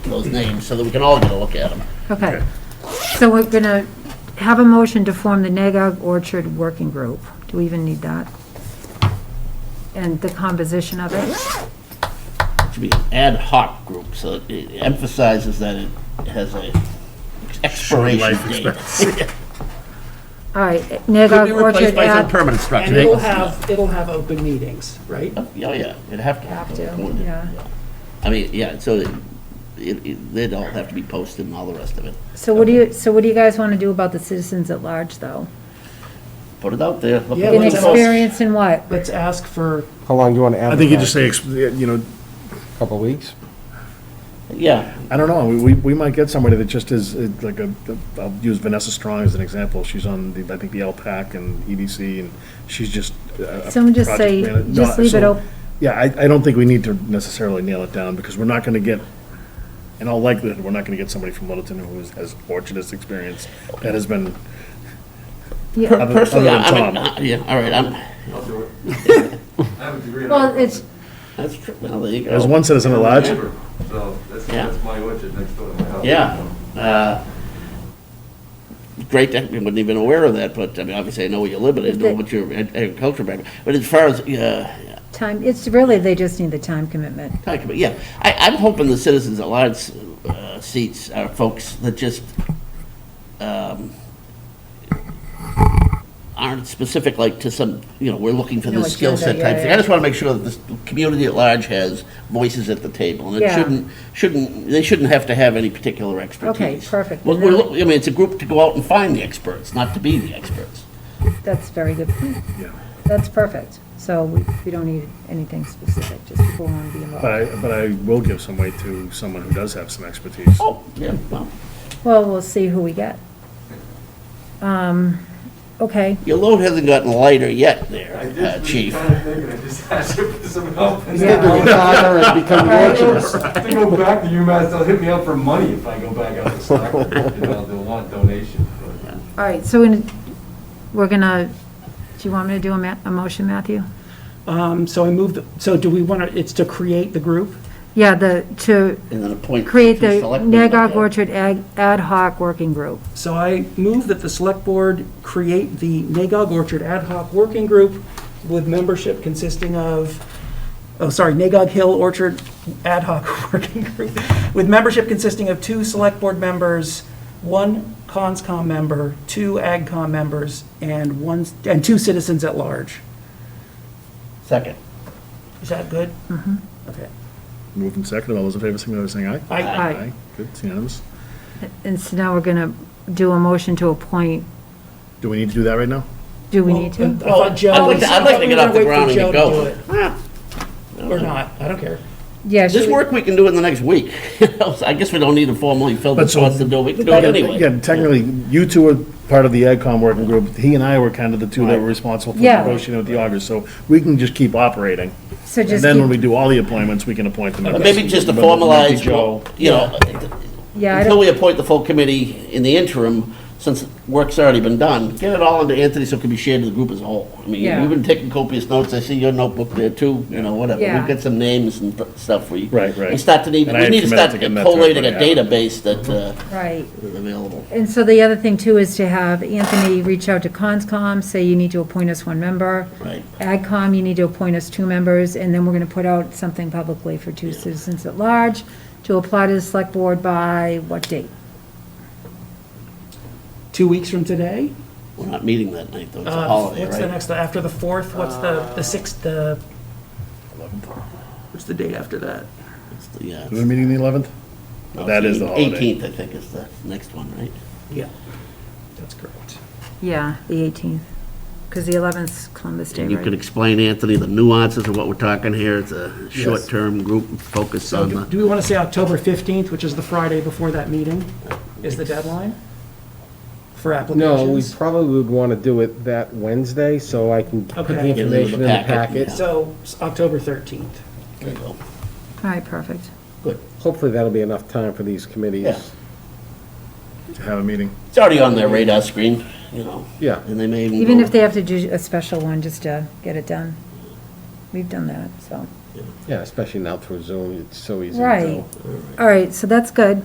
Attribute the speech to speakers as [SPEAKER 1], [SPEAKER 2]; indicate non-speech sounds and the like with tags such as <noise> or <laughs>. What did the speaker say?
[SPEAKER 1] those names, so that we can all get a look at them.
[SPEAKER 2] Okay. So we're gonna have a motion to form the Nagog Orchard Working Group. Do we even need that? And the composition of it?
[SPEAKER 1] It should be an ad hoc group, so it- it emphasizes that it has a expiration
[SPEAKER 3] life
[SPEAKER 1] date.
[SPEAKER 2] All right,
[SPEAKER 1] Could
[SPEAKER 2] Nagog
[SPEAKER 1] be
[SPEAKER 2] Orchard
[SPEAKER 1] replaced by some
[SPEAKER 2] ad.
[SPEAKER 3] permanent structure.
[SPEAKER 4] And it'll have, it'll have open meetings, right?
[SPEAKER 1] <laughs> Oh, yeah, it'd have to.
[SPEAKER 2] Have to,
[SPEAKER 1] Wouldn't it?
[SPEAKER 2] yeah.
[SPEAKER 1] I mean, yeah, so it- it, it, they'd all have to be posted and all the rest of it.
[SPEAKER 2] So what do you, so what do you guys want to do about the citizens at large, though?
[SPEAKER 1] Put it out there. let
[SPEAKER 4] Yeah,
[SPEAKER 1] people
[SPEAKER 4] let's
[SPEAKER 1] vote.
[SPEAKER 4] all-
[SPEAKER 2] Inexperience in what?
[SPEAKER 4] Let's ask for,
[SPEAKER 5] How long do you want to
[SPEAKER 3] I
[SPEAKER 5] advertise?
[SPEAKER 3] think you just say, ex- you know,
[SPEAKER 5] a Couple of weeks?
[SPEAKER 1] Yeah,
[SPEAKER 3] I don't know, we, we might get somebody that just is, uh, like, a, I'll use Vanessa Strong as an example, she's on, the I think, the LPAC and EDC, and she's just. uh, a
[SPEAKER 2] Someone just
[SPEAKER 3] project
[SPEAKER 2] say-
[SPEAKER 3] manager. No,
[SPEAKER 2] just leave it
[SPEAKER 3] so-
[SPEAKER 2] op-
[SPEAKER 3] Yeah, I, I don't think we need to necessarily nail it down, because we're not gonna get, in all likelihood, we're not gonna get somebody from Littleton who is- has orchardist experience, that has been,
[SPEAKER 2] Yeah.
[SPEAKER 3] other
[SPEAKER 1] personally,
[SPEAKER 3] than
[SPEAKER 1] I I mean,
[SPEAKER 3] Tom.
[SPEAKER 1] uh, yeah, all right, I'm,
[SPEAKER 6] I'll do it.
[SPEAKER 1] <laughs>
[SPEAKER 6] I have a degree in.
[SPEAKER 2] Well, it's,
[SPEAKER 1] that's true, well, there you go.
[SPEAKER 3] there's one citizen at large.
[SPEAKER 6] So that's,
[SPEAKER 1] Yeah.
[SPEAKER 6] that's my orchard next door to my house.
[SPEAKER 1] Yeah. uh, Great, I wasn't even aware of that, but, I mean, obviously, I know where you live, but I didn't know
[SPEAKER 2] The-
[SPEAKER 1] what your ag- agriculture background, but as far as, uh,
[SPEAKER 2] time, it's really, they just need the time commitment.
[SPEAKER 1] Talk about- yeah, I, I'm hoping the citizens at large uh, seats are folks that just um, aren't specific, like to some, you know, we're looking for
[SPEAKER 2] No
[SPEAKER 1] this skill set
[SPEAKER 2] agenda, yeah,
[SPEAKER 1] type thing.
[SPEAKER 2] yeah.
[SPEAKER 1] I just want to make sure that the community at large has voices at the table, and it
[SPEAKER 2] Yeah.
[SPEAKER 1] shouldn't, shouldn't, they shouldn't have to have any particular expertise.
[SPEAKER 2] perfect.
[SPEAKER 1] Well, we're, look- I mean, it's a group to go out and find the experts, not to be the experts.
[SPEAKER 2] That's very good point.
[SPEAKER 3] Yeah.
[SPEAKER 2] That's perfect. So we, we don't need anything specific, just people want to be
[SPEAKER 3] But
[SPEAKER 2] involved.
[SPEAKER 3] I, but I will give some weight to someone who does have some expertise.
[SPEAKER 1] Oh, yeah, well,
[SPEAKER 2] Well, we'll see who we get. Um, okay,
[SPEAKER 1] your load hasn't gotten lighter yet there,
[SPEAKER 6] I
[SPEAKER 1] uh,
[SPEAKER 6] just was
[SPEAKER 1] chief.
[SPEAKER 6] trying to think, and I just <laughs> asked you for some help.
[SPEAKER 2] Yeah.
[SPEAKER 1] <laughs>
[SPEAKER 5] <laughs>
[SPEAKER 6] <laughs> To go back to UMass, they'll hit me up for money if I go back out to Stockbridge, you know, they'll want donation, but.
[SPEAKER 2] all right, so in- we're gonna, do you want me to do a ma, a motion, Matthew?
[SPEAKER 4] um, so I moved, so do we want to, it's to create the group?
[SPEAKER 2] Yeah, the, to
[SPEAKER 1] And then appoint.
[SPEAKER 2] create
[SPEAKER 1] two
[SPEAKER 2] the
[SPEAKER 1] select board
[SPEAKER 2] Nagog
[SPEAKER 1] members.
[SPEAKER 2] Orchard Ag- Ad Hoc Working Group.
[SPEAKER 4] So I move that the select board create the Nagog Orchard Ad Hoc Working Group with membership consisting of, oh, sorry, Nagog Hill Orchard Ad Hoc <laughs> Working Group, with membership consisting of two select board members, one conscom member, two agcom members, and one, and two citizens at large.
[SPEAKER 1] Second.
[SPEAKER 4] Is that good? Mm-hmm. Okay.
[SPEAKER 3] Moved and seconded, all those in favor, signify by saying aye.
[SPEAKER 4] I-
[SPEAKER 2] Aye.
[SPEAKER 3] Good, it's unanimous.
[SPEAKER 2] And so now we're gonna do a motion to appoint,
[SPEAKER 3] Do we need to do that right now?
[SPEAKER 2] do we need to?
[SPEAKER 1] uh,
[SPEAKER 4] I thought Oh, uh, Joe-
[SPEAKER 1] I'd like to- I'd like to get
[SPEAKER 4] I
[SPEAKER 1] off
[SPEAKER 4] thought we
[SPEAKER 1] the
[SPEAKER 4] were gonna
[SPEAKER 1] ground and
[SPEAKER 4] wait
[SPEAKER 1] get
[SPEAKER 4] for Joe to
[SPEAKER 1] going.
[SPEAKER 4] do it, Or not, I don't care.
[SPEAKER 2] Yeah,
[SPEAKER 1] This
[SPEAKER 2] should we-
[SPEAKER 1] work, we can do in the next week. <laughs> I guess we don't need to formally fill
[SPEAKER 3] But
[SPEAKER 1] this
[SPEAKER 3] so-
[SPEAKER 1] out to do it, we can do it anyway.
[SPEAKER 3] Yeah, technically, you two are part of the AgCom working group. He and I were kind of the two that were responsible for
[SPEAKER 2] Yeah.
[SPEAKER 3] negotiating with the augers, so we can just keep operating.
[SPEAKER 2] So
[SPEAKER 3] And
[SPEAKER 2] just
[SPEAKER 3] then when we
[SPEAKER 2] keep,
[SPEAKER 3] do all the appointments, we can appoint them.
[SPEAKER 1] But Uh, Maybe just to formalize, you know,
[SPEAKER 2] yeah, I
[SPEAKER 1] until
[SPEAKER 2] don't,
[SPEAKER 1] we appoint the full committee in the interim, since work's already been done, get it all into Anthony so it can be shared to the group as a whole. I mean,
[SPEAKER 2] Yeah.
[SPEAKER 1] you've been taking copious notes, I see your notebook there too, you know, whatever.
[SPEAKER 2] Yeah.
[SPEAKER 1] We've got some names and th- stuff we.
[SPEAKER 3] Right, right.
[SPEAKER 1] We start to need,
[SPEAKER 3] And I
[SPEAKER 1] we
[SPEAKER 3] had
[SPEAKER 1] need to
[SPEAKER 3] committed
[SPEAKER 1] start
[SPEAKER 3] to getting that to
[SPEAKER 1] collating a
[SPEAKER 3] everybody.
[SPEAKER 1] database that uh,
[SPEAKER 2] right.
[SPEAKER 1] is available.
[SPEAKER 2] And so the other thing too is to have Anthony reach out to CONSCOM, say you need to appoint us one member.
[SPEAKER 1] Right.
[SPEAKER 2] AgCom, you need to appoint us two members, and then we're gonna put out something publicly for two citizens at large to apply to the select board by what date?
[SPEAKER 4] Two weeks from today?
[SPEAKER 1] We're not meeting that night, though, it's a
[SPEAKER 4] Uh,
[SPEAKER 1] holiday,
[SPEAKER 4] What's the
[SPEAKER 1] right?
[SPEAKER 4] next, after the 4th, what's the, the 6th, the? Uh, What's the date after that?
[SPEAKER 1] It's the- Yeah.
[SPEAKER 3] Is the meeting the eleventh?
[SPEAKER 1] No,
[SPEAKER 3] That
[SPEAKER 1] it's
[SPEAKER 3] is the holiday.
[SPEAKER 1] Eighteenth, I think, is the next one, right?
[SPEAKER 4] Yeah. That's correct.
[SPEAKER 2] Yeah, the eighteenth, because the eleventh's Columbus Day,
[SPEAKER 1] And you
[SPEAKER 2] right?
[SPEAKER 1] could explain, Anthony, the nuances of what we're talking here. It's a short-term group focus
[SPEAKER 4] So
[SPEAKER 1] on
[SPEAKER 4] do
[SPEAKER 1] the,
[SPEAKER 4] do we want to say October 15th, which is the Friday before that meeting, is the deadline for
[SPEAKER 5] No, we
[SPEAKER 4] applications?
[SPEAKER 5] probably would want to do it that Wednesday, so I can put the
[SPEAKER 4] Okay.
[SPEAKER 1] Get it in the
[SPEAKER 5] information in the
[SPEAKER 1] packet,
[SPEAKER 5] packet.
[SPEAKER 1] yeah.
[SPEAKER 4] So, s- October 13th.
[SPEAKER 1] there you go.
[SPEAKER 2] All right, perfect.
[SPEAKER 5] Hopefully, that'll be enough time for these
[SPEAKER 1] Yeah.
[SPEAKER 5] committees.
[SPEAKER 3] To have a meeting.
[SPEAKER 1] It's already on their radar screen, you know.
[SPEAKER 5] Yeah.
[SPEAKER 1] And they may even.
[SPEAKER 2] Even
[SPEAKER 1] go-
[SPEAKER 2] if they have to do a special one, just to get it done. We've done that, so.
[SPEAKER 5] Yeah, especially now through Zoom, it's so easy to do.
[SPEAKER 2] Right. All right, so that's good.